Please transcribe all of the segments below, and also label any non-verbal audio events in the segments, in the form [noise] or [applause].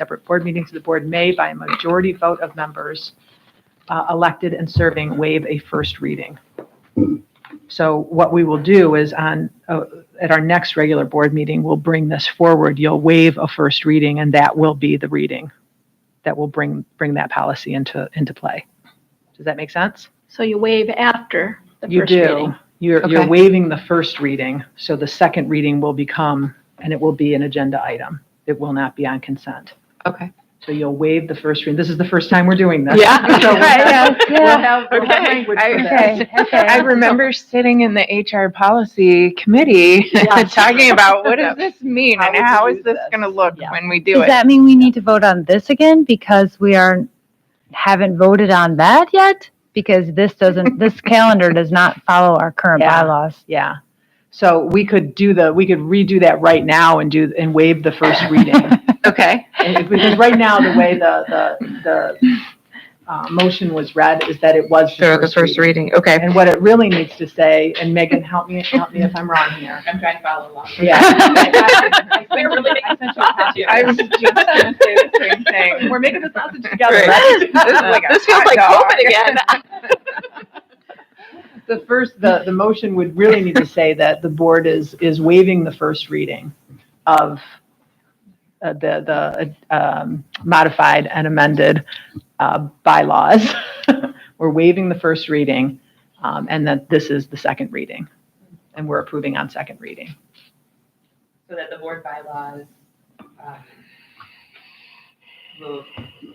separate board meetings, the board may, by a majority vote of members uh, elected and serving, waive a first reading. So what we will do is on, uh, at our next regular board meeting, we'll bring this forward. You'll waive a first reading, and that will be the reading that will bring, bring that policy into, into play. Does that make sense? So you waive after the You first do. reading. You're, you're Okay. waiving the first reading, so the second reading will become, and it will be an agenda item. It will not be on consent. Okay. So you'll waive the first reading. This is the first time we're doing this. Yeah. [laughs] So [laughs] we'll have- Right, yeah, we'll yeah. have- we'll have Okay. language for that. [laughs] Okay, okay. I I remember sitting in the HR policy committee Yes. [laughs] talking about what [laughs] does this mean How and would how you is do this this? going to look Yeah. when we do Does it? that mean we need to vote on this again because we are, haven't voted on that yet? Because this [laughs] doesn't, this calendar does not follow our current Yeah. bylaws. Yeah. So we could do the, we could redo that right now and do, and waive the first reading. Okay. And if- Because right now, the way the, the, the uh, motion was read is that it was So the first reading. reading, okay. And what it really needs to say, and Megan, help me, help me if I'm wrong here. I'm trying to follow along. [laughs] Yeah. I was just gonna say the same thing. We're making the sausage together. Right. This is [laughs] like a This feels hot like dog. [laughs] COVID again. The first, the, the motion would really need to say that the board is, is waiving the first reading of uh, the, the um, modified and amended uh, bylaws. [laughs] We're waiving the first reading, um, and that this is the second reading, and we're approving on second reading. [laughs] So that the board bylaws um, will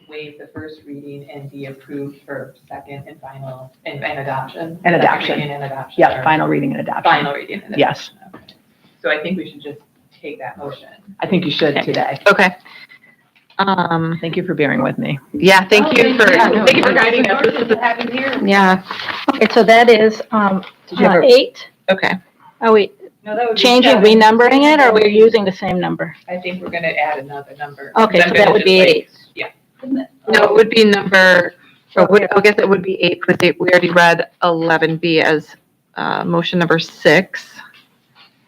waive the first reading and be approved for second and final, and and adoption. And Second adoption. reading And adoption. Yeah, or final reading and adoption. Final reading. and Yes. adoption, okay. So I think we should just take that motion. I think you should today. Okay. Um, Thank you for bearing with me. yeah, Oh, thank you for, Oh, Yeah, no, thank you for it's- guiding us. This it's- is it's happened here. a- Yeah, Okay, so that is, um, Did you have uh, a- eight. okay. Are we No, that would be changing, seven. renumbering it, or we're using the same number? I think we're gonna add another number. Okay, I'm so gonna that would just, be like, eight. Yeah. No, it would be number, or would, I guess it would be eight, but they, we already read eleven B as, uh, motion number six.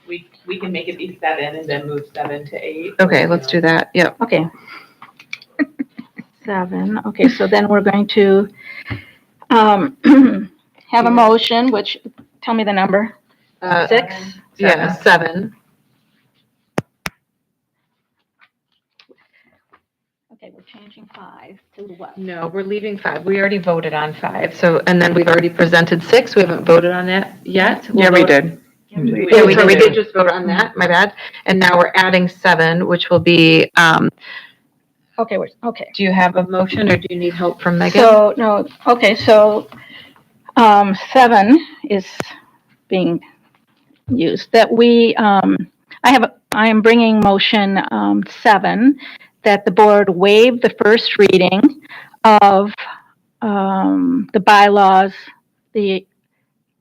We, we can make it be seven and then move seven to eight. Okay, let's do that, yep. Okay. Seven, okay, so then we're going to, um, [clears throat] have a motion, which, tell me the number. Uh, Six? Yeah, seven. Okay, we're changing five to what? No, we're leaving five. We already voted on five, so, and then we've already presented six. We haven't voted on it yet. We'll Yeah, we vote- did. Mm-hmm. Yeah, we did, we did just vote on that, my bad. And now we're adding seven, which will be, um, Okay, we're, okay. do you have a motion or do you need help from Megan? So, no, okay, so, um, seven is being used, that we, um, I have, I am bringing motion, um, seven, that the board waive the first reading of, um, the bylaws, the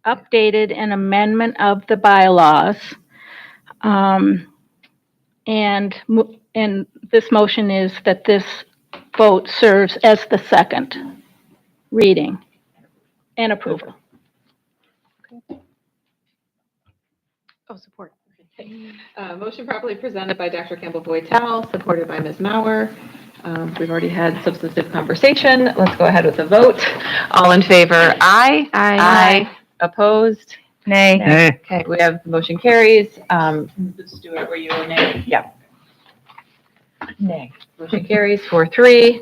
updated and amendment of the bylaws. Um, and, mo- and this motion is that this vote serves as the second reading and approval. Oh, support. Uh, motion properly presented by Dr. Campbell Boytow, supported by Ms. Mauer. Um, we've already had substantive conversation. Let's go ahead with the vote. All in favor, aye. Opposed? Nay. Hey. Okay, we have, motion carries. Um, Let's do it where you [laughs] were named. motion carries four, three.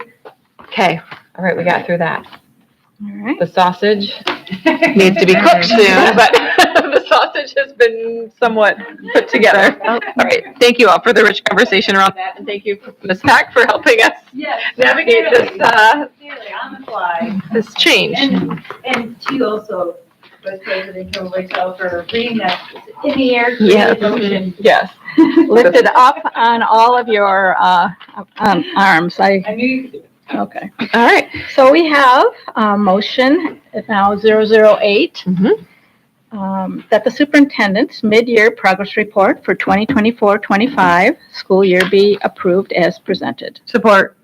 Okay, all right, we got through that. All right. The sausage needs to be cooked [laughs] soon, [laughs] but the sausage has been somewhat put together. All right, thank you all for the rich conversation around that, and thank you, Ms. Pack, for helping us Yes, navigate this, uh, clearly, on the fly. this change. And, and to you also, Vice President Kilroy, for reading that in the air, Yes. creative motion. Yes. Lifted up on all of your, uh, um, arms, I, I knew you could do it. okay. All right, So we have, uh, motion now zero zero eight. Mhm. Um, that the superintendent's mid-year progress report for 2024-25 school year be approved as presented. Support.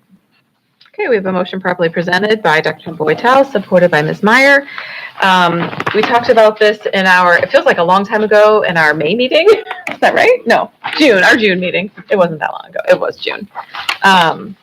Okay, we have a motion properly presented by Dr. Boytow, supported by Ms. Meyer. Um, We talked about this in our, it feels like a long time ago, in our May meeting. [laughs] Is that right? No, June, our June meeting. It wasn't that long ago. It was June. Um,